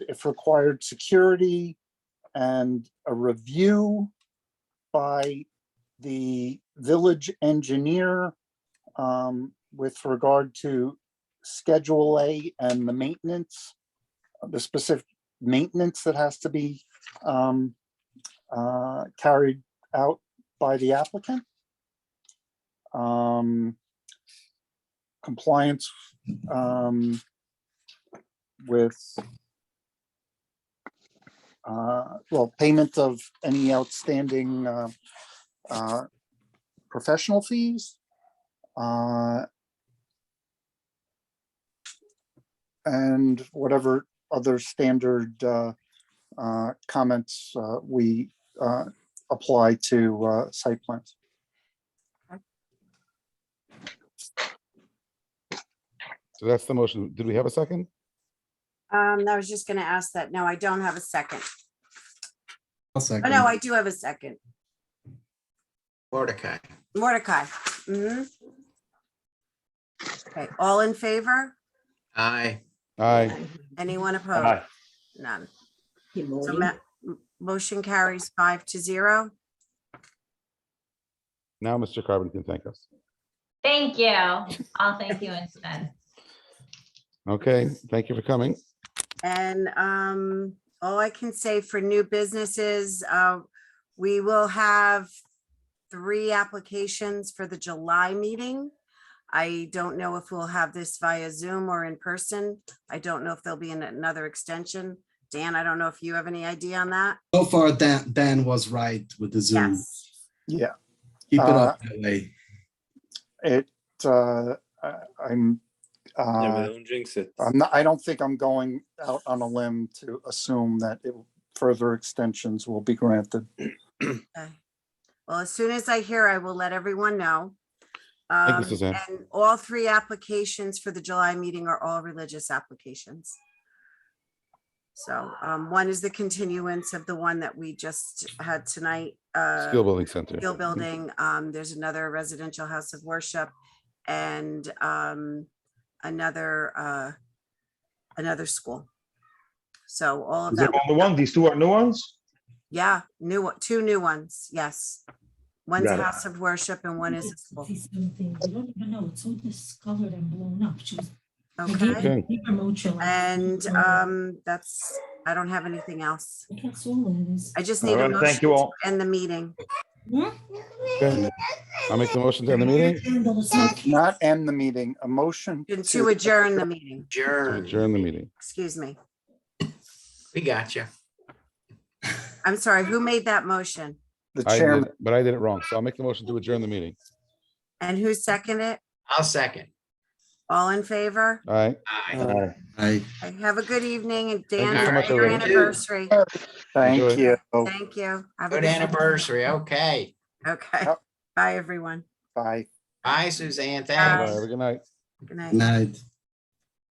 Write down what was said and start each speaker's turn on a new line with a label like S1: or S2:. S1: if required, security and a review by the village engineer um, with regard to Schedule A and the maintenance, the specific maintenance that has to be um, uh, carried out by the applicant. Um, Compliance um, with uh, well, payment of any outstanding uh, uh, professional fees. uh, And whatever other standard uh, uh, comments uh, we uh, apply to uh, site plans.
S2: So that's the motion. Did we have a second?
S3: Um, I was just gonna ask that. No, I don't have a second.
S4: I'll
S3: Oh,
S4: second.
S3: no, I do have a second.
S5: Mordecai,
S3: Mordecai. mhm. Okay, all in favor?
S5: aye.
S2: Aye.
S3: Anyone opposed?
S6: Aye.
S3: None.
S7: Good
S3: So
S7: morning.
S3: ma- m- motion carries five to zero.
S2: Now Mr. Carbon can thank us.
S8: Thank you. I'll thank you instead.
S2: Okay, thank you for coming.
S3: And um, all I can say for new businesses, uh, we will have three applications for the July meeting. I don't know if we'll have this via Zoom or in person. I don't know if there'll be an- another extension. Dan, I don't know if you have any idea on that?
S4: So far, Dan, Dan was right with the Zoom.
S3: Yes.
S1: Yeah,
S4: Keep it
S1: Uh,
S4: up that way.
S1: it, uh, I- I'm,
S9: Yeah,
S1: uh,
S9: but don't jinx it.
S1: I'm not, I don't think I'm going out on a limb to assume that it- further extensions will be granted.
S3: Okay. Well, as soon as I hear, I will let everyone know.
S2: you,
S3: Um,
S2: Suzanne.
S3: And all three applications for the July meeting are all religious applications. So um, one is the continuance of the one that we just had tonight. uh,
S2: Skill Building Center.
S3: Gill Building, um, there's another residential house of worship and, um, another, uh, another school. So all of
S4: Is
S3: that,
S6: On the one, these two are new ones?
S3: yeah, new, one- two new ones, yes. One's
S6: Got
S3: a
S6: it.
S3: house of worship and one is a school,
S7: See something, I don't even know, it's all discolored and blown up, she was. I gave
S3: okay?
S2: Okay.
S7: her- gave her mojo, like,
S3: And,
S7: uh,
S3: um, that's, I don't have anything else.
S7: That's all it is.
S3: I just
S6: All
S3: need a
S6: right,
S3: motion
S6: thank you
S3: to
S6: all.
S3: end the meeting.
S2: Okay. I'll make the motion to end the meeting.
S7: Candle is not-
S1: Not end the meeting, a motion.
S3: To adjourn the meeting,
S5: Adjourn,
S2: Adjourn the meeting.
S3: excuse me.
S5: we got you.
S3: I'm sorry, who made that motion?
S1: The
S2: I did,
S1: chairman,
S2: it, but I did it wrong. So I'll make the motion to adjourn the meeting.
S3: And who seconded it?
S5: I'll second.
S3: All in favor?
S2: All right.
S5: Aye.
S6: Aye.
S4: I,
S3: Okay, Have a good evening and Dan,
S2: you
S5: so much,
S3: happy your
S5: everyone.
S3: anniversary.
S1: thank
S2: Enjoy.
S1: you.
S3: Thank you. Have a
S5: Good anniversary, okay.
S3: Okay.
S1: Yep.
S3: Bye, everyone.
S1: Bye.
S5: Bye, Suzanne,
S2: Bye-bye.
S5: thanks.
S2: Have a good night.
S3: Good night.
S4: night.